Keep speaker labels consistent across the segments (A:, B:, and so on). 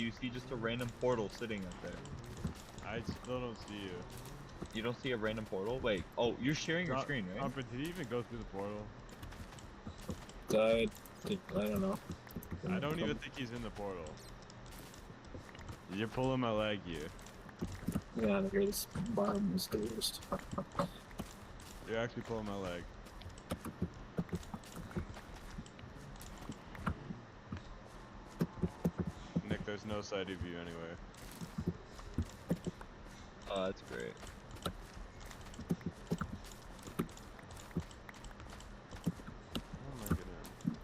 A: you see just a random portal sitting up there.
B: I still don't see you.
A: You don't see a random portal? Wait, oh, you're sharing your
B: Not-
A: screen, right?
B: Oh, but did he even go through the portal?
C: I, did- I don't know.
B: I don't even think he's in the portal. You're pulling my leg, you.
C: Yeah, here this bottom is closed.
B: You're actually pulling my leg. Nick, there's no side of you anywhere.
A: oh, that's great.
B: Oh my goodness.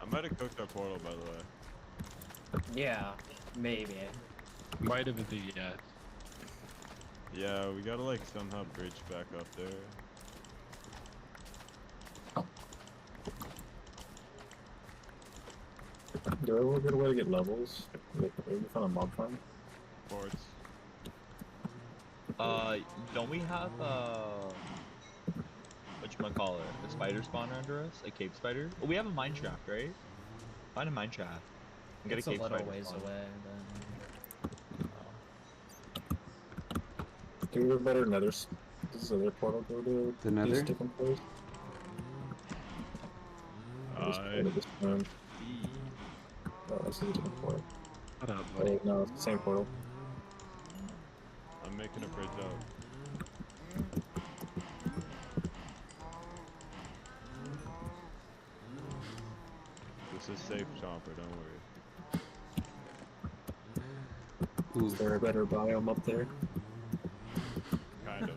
B: I might have cooked our portal, by the way.
D: Yeah, maybe.
E: Might have been the uh,
B: Yeah, we gotta like somehow bridge back up there.
C: Do I look at a way to get levels? Like, maybe find a mob farm?
B: Forts.
A: Uh, don't we have, uh, whatchamacallit, a spider spawner under us? A cave spider? Well, we have a mine shaft, right? Find a mine shaft. And get
D: it's
A: a
D: a,
A: cave
D: little
A: spider
D: ways
A: spawner.
D: away. But...
C: Do we have a better nether? s- This is other portal go to these
F: The nether?
C: different places? This
B: I
C: portal, this one.
B: E.
C: Oh, that's a different portal.
E: I don't know,
C: Oh,
E: buddy.
C: wait, no, it's the same portal.
B: I'm making a bridge up. This is safe, Chomper. Don't worry.
F: Ooh,
C: Is there a better biome up there?
B: Kind of.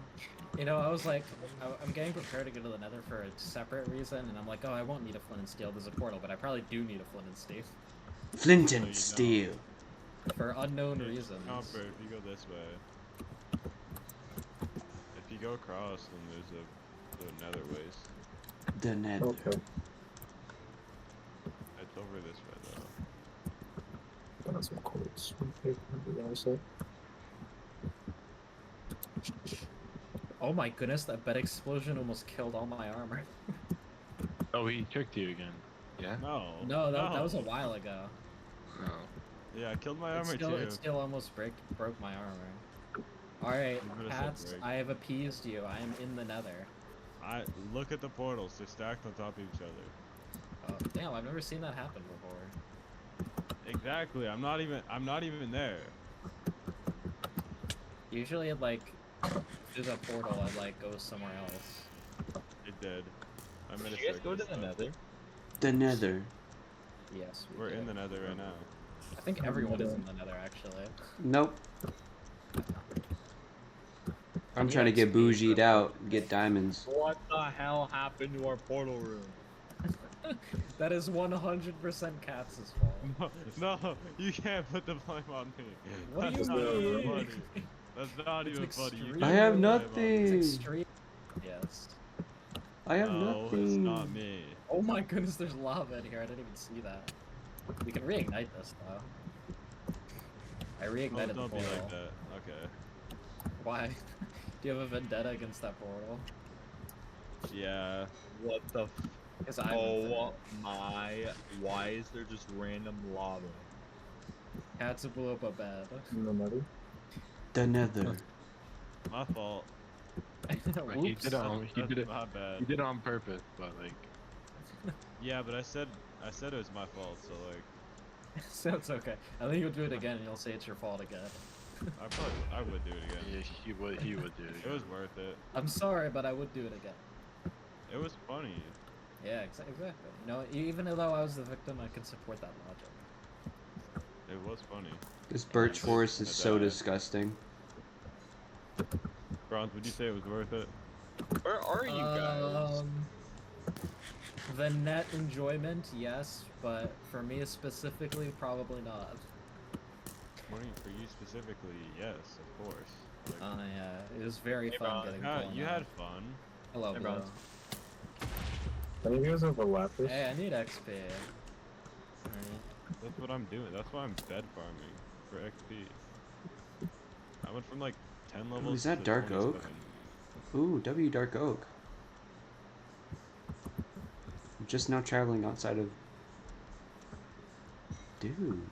D: You know, I was like, I, I'm getting prepared to go to the Nether for a separate reason, and I'm like, oh, I won't need a flint and steel. There's a portal, but I probably do need a flint and steel
F: Flint
B: No, you
F: and steel.
D: for unknown
B: Hey,
D: reasons.
B: Chomper, if you go this way. If you go across, then there's a the nether waste.
F: The nether.
C: Okay.
B: It's over this way though.
C: Got some quartz. Okay, maybe on the side.
D: Oh my goodness, that bed explosion almost killed all my armor.
E: Oh, he tricked you again. Yeah?
B: Oh, No.
D: No, that, that was a while ago.
E: No.
B: Yeah, I killed my
D: It
B: armor
D: still,
B: too.
D: it still almost break, broke my armor. All right,
B: I'm gonna say
D: Pats,
B: break.
D: I have appeased you. I am in the Nether.
B: I look at the portals. They're stacked on top of each other.
D: Oh, damn, I've never seen that happen before.
B: Exactly. I'm not even. I'm not even there.
D: Usually, it like there's a portal and like goes somewhere else.
B: It did. I'm in
A: Did
B: a
A: you guys go to
B: circus,
A: the
B: though.
A: nether?
F: The nether.
D: Yes. we
B: We're in
D: did.
B: the nether right now.
D: I think everyone is in the Nether actually.
F: Nope. I'm
D: Yeah,
F: trying to
D: it's
F: get
D: me,
F: bougied
D: bro.
F: out, and get diamonds.
A: What the hell happened to our portal room?
D: That is 100% Katz's fault.
B: No, no, you can't put the blame on me.
D: What do
B: That's
D: you
B: not even
D: mean?
B: funny. That's not
D: It's
B: even funny. You
D: extreme.
B: can't
F: I
B: put
F: have
B: the blame on me.
D: It's
F: nothing.
D: extreme. Yes.
F: I have
B: no,
F: nothing.
B: it's not me.
D: Oh my goodness, there's lava in here. I didn't even see that. We can reignite this though. I
B: Oh,
D: reignited the
B: don't be
D: portal.
B: like that. Okay.
D: Why? Do you have a vendetta against that portal?
B: Yeah.
A: What the f-
D: Because I'm
A: Oh my, why is there just random lava?
D: Katz blew up a bed.
C: In the nether?
F: The nether.
B: My fault.
E: Like, he did it on he
B: That's
E: did it
B: My
E: he
B: bad.
E: did it on purpose, but like
B: Yeah, but I said I said it was my fault. So like,
D: so it's okay. I think you'll do it again and you'll say it's your fault again.
B: I probably I would do it again.
E: yeah, he would he would do it.
B: It was worth it.
D: I'm sorry, but I would do it again.
B: It was funny.
D: Yeah, exa- exactly. You know, e- even though I was the victim, I can support that logic.
B: It was funny.
F: This birch forest is so
B: Nether.
F: disgusting.
B: Bronze, would you say it was worth it?
A: Where are you guys?
D: Um, the net enjoyment, yes, but for me specifically, probably not.
B: What do you- for you specifically, yes, of course. Like,
D: Uh, yeah, it was very
A: Hey,
D: fun
A: Bron,
D: getting
B: yeah,
D: blown
B: you
D: up.
B: had fun.
D: Hello,
A: Hey,
D: Blue.
A: Bron.
C: I think you guys have a lapis.
D: Hey, I need XP. Alright.
B: That's what I'm doing. That's why I'm bed farming for XP. I went from like 10 levels.
F: is that
B: to
F: dark
B: 27.
F: oak? Ooh, W dark oak. I'm just now traveling outside of. Dude.